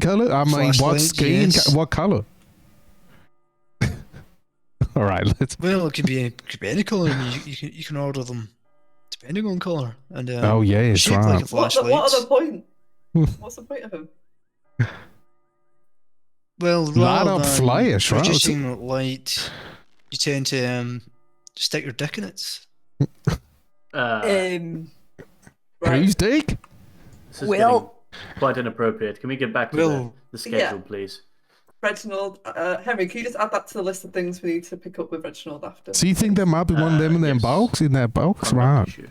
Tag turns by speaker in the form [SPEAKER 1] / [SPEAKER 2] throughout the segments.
[SPEAKER 1] color? I mean,
[SPEAKER 2] Flesh
[SPEAKER 1] what
[SPEAKER 2] link,
[SPEAKER 1] skin?
[SPEAKER 2] yes.
[SPEAKER 1] co- What color? All right, let's.
[SPEAKER 2] Well, it could be it could be any color. and you, you can you can order them depending on color and um,
[SPEAKER 1] oh yeah, it's
[SPEAKER 2] shape
[SPEAKER 1] right.
[SPEAKER 2] like a
[SPEAKER 3] What, the,
[SPEAKER 2] flashlight.
[SPEAKER 3] what are the point?
[SPEAKER 1] Hmm.
[SPEAKER 3] What's the point of him?
[SPEAKER 2] well,
[SPEAKER 1] Light
[SPEAKER 2] rather
[SPEAKER 1] up
[SPEAKER 2] than
[SPEAKER 1] flash, right? It's-
[SPEAKER 2] producing light, you tend to um, stick your dick in it.
[SPEAKER 4] Uh,
[SPEAKER 3] Um,
[SPEAKER 1] Who's dick?
[SPEAKER 4] this is
[SPEAKER 3] Well,
[SPEAKER 4] getting quite inappropriate. Can we get back to
[SPEAKER 2] Well-
[SPEAKER 4] the, the schedule, please?
[SPEAKER 3] Reginald, uh, Henry, can you just add that to the list of things we need to pick up with Reginald after?
[SPEAKER 1] So you think there might be one of them in
[SPEAKER 4] Uh,
[SPEAKER 1] their
[SPEAKER 4] yes. Uh,
[SPEAKER 1] box? In that box,
[SPEAKER 4] Contact
[SPEAKER 1] right?
[SPEAKER 4] issue.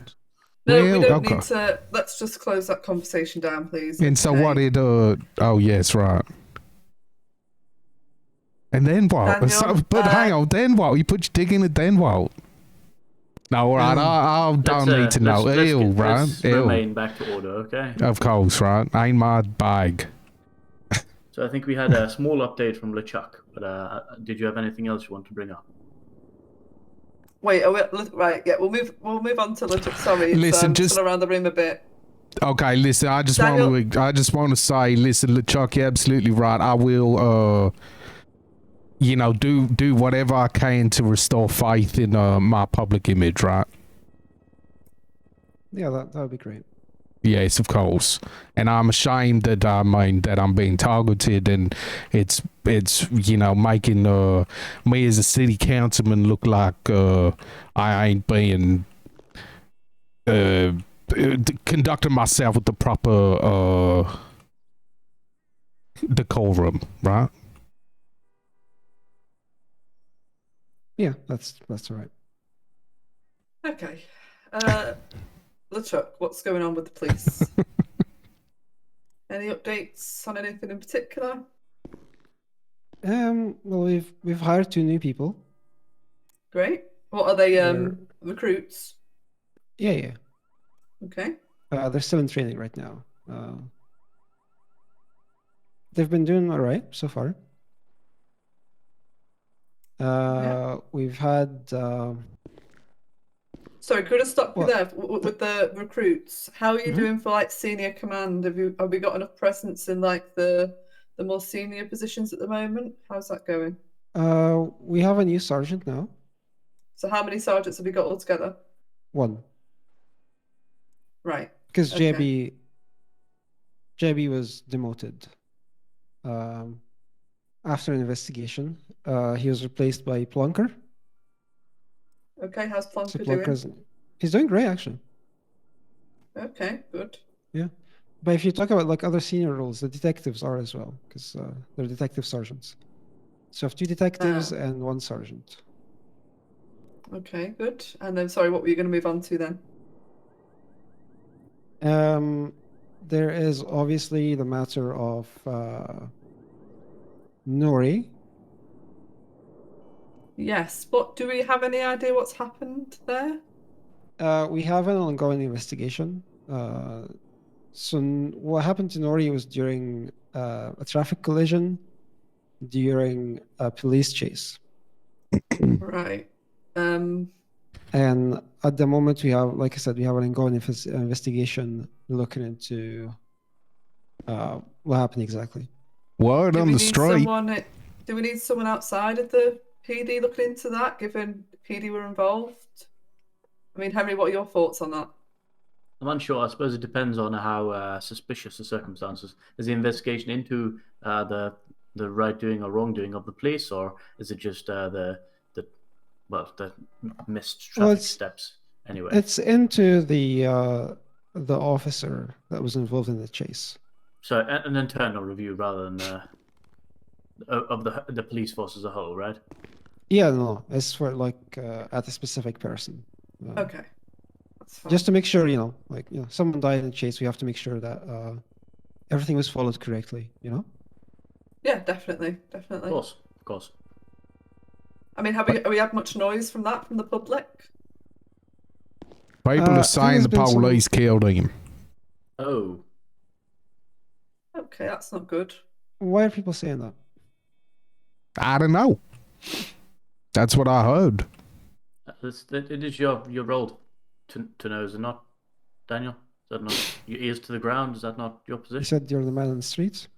[SPEAKER 3] no,
[SPEAKER 1] Well,
[SPEAKER 3] we don't
[SPEAKER 1] okay.
[SPEAKER 3] need to. Let's just close that conversation down, please.
[SPEAKER 1] And so
[SPEAKER 3] Okay.
[SPEAKER 1] what it uh oh yes, right. And then what? And so,
[SPEAKER 3] Daniel,
[SPEAKER 1] but
[SPEAKER 3] uh,
[SPEAKER 1] hang on, then what? You put your dick in it, then what? No, all right,
[SPEAKER 2] Um,
[SPEAKER 1] I, I don't
[SPEAKER 4] Let's, uh,
[SPEAKER 1] need to know.
[SPEAKER 4] let's- let's
[SPEAKER 1] Ew,
[SPEAKER 4] get-
[SPEAKER 1] right?
[SPEAKER 4] let's
[SPEAKER 1] Ew. Uh,
[SPEAKER 4] remain back to order, okay?
[SPEAKER 1] Of course, right? Ain't my bag.
[SPEAKER 4] So I think we had a small update from LeChuck, but uh, did you have anything else you want to bring up?
[SPEAKER 3] Wait, are we, li- right? Yeah, we'll move. We'll move on to legit. Sorry, it's,
[SPEAKER 1] Listen,
[SPEAKER 3] um,
[SPEAKER 1] just-
[SPEAKER 3] still around the room a bit.
[SPEAKER 1] Okay, listen, I just
[SPEAKER 3] Daniel-
[SPEAKER 1] want to I just want to say, listen, LeChuck, you're absolutely right. I will uh you know, do do whatever I can to restore faith in uh, my public image, right?
[SPEAKER 5] Yeah, that, that would be great.
[SPEAKER 1] Yes, of course. And I'm ashamed that I mean that I'm being targeted, and it's it's you know making uh, me as a city councilman look like uh, I ain't being uh, uh, d- conducting myself with the proper uh, decorum, right?
[SPEAKER 5] Yeah, that's that's all right.
[SPEAKER 3] Okay. Uh, LeChuck, what's going on with the police? Any updates on anything in particular?
[SPEAKER 5] Um, well, we've we've hired two new people.
[SPEAKER 3] Great. What are they? Um, recruits.
[SPEAKER 5] Yeah, yeah.
[SPEAKER 3] Okay.
[SPEAKER 5] Uh, they're still in training right now. Uh, they've been doing all right so far. Uh, We've had um
[SPEAKER 3] Sorry, could I stop you
[SPEAKER 5] What?
[SPEAKER 3] there w- w- with the recruits? How are you
[SPEAKER 5] Mhm.
[SPEAKER 3] doing for like senior command? Have you have we got enough presence in like the the more senior positions at the moment? How's that going?
[SPEAKER 5] uh, we have a new sergeant now.
[SPEAKER 3] So how many sergeants have we got altogether?
[SPEAKER 5] One,
[SPEAKER 3] Right.
[SPEAKER 5] because
[SPEAKER 3] Okay.
[SPEAKER 5] JB JB was demoted um, after an investigation. Uh, he was replaced by Plunker.
[SPEAKER 3] Okay. How's
[SPEAKER 5] So
[SPEAKER 3] Plonker doing?
[SPEAKER 5] Plunker's he's doing great actually.
[SPEAKER 3] Okay. Good.
[SPEAKER 5] But if you talk about like other senior roles, the detectives are as well because uh, they're detective sergeants. So you have two detectives and one sergeant.
[SPEAKER 3] Okay. Good. And then sorry, what were you going to move on to then?
[SPEAKER 5] Um, there is obviously the matter of uh, Nori.
[SPEAKER 3] Yes. But do we have any idea what's happened there?
[SPEAKER 5] Uh, we have an ongoing investigation. Uh, so n- what happened to Nori was during uh, a traffic collision, during a police chase.
[SPEAKER 3] Right. Um.
[SPEAKER 5] And at the moment, we have, like I said, we have an ongoing inves- investigation looking into uh, what happened exactly.
[SPEAKER 1] Word
[SPEAKER 3] Do
[SPEAKER 1] on
[SPEAKER 3] we
[SPEAKER 1] the
[SPEAKER 3] need
[SPEAKER 1] street.
[SPEAKER 3] someone? Do we need someone outside of the PD looking into that, given PD were involved? I mean, Henry, what are your thoughts on that?
[SPEAKER 4] I'm unsure. I suppose it depends on how uh, suspicious the circumstances. Is the investigation into uh, the the right doing or wrongdoing of the police, or is it just uh, the the well the missed traffic
[SPEAKER 5] Well, it's-
[SPEAKER 4] steps? Anyway,
[SPEAKER 5] It's into the uh, the officer that was involved in the chase.
[SPEAKER 4] so a- an internal review rather than uh, o- of the the police force as a whole, right?
[SPEAKER 5] Yeah, no, it's for like uh, at a specific person. Uh,
[SPEAKER 3] Okay. That's fine.
[SPEAKER 5] Just to make sure, you know, like you know, someone died in the chase. We have to make sure that uh, everything was followed correctly. You know.
[SPEAKER 3] yeah, definitely, definitely.
[SPEAKER 4] Of course, of course.
[SPEAKER 3] I mean, have we, have we had much noise from that from the public?
[SPEAKER 1] People
[SPEAKER 5] Uh, I
[SPEAKER 1] are
[SPEAKER 5] think
[SPEAKER 1] saying the
[SPEAKER 5] there's been some-
[SPEAKER 1] police killed him.
[SPEAKER 4] Oh,
[SPEAKER 3] Okay, that's not good.
[SPEAKER 5] Why are people saying that?
[SPEAKER 1] I don't know. That's what I heard.
[SPEAKER 4] that's, that, it is your your role to to know, is it not, Daniel? Is that not your ears to the ground? Is that not your
[SPEAKER 5] You
[SPEAKER 4] position?
[SPEAKER 5] said you're the man on the streets.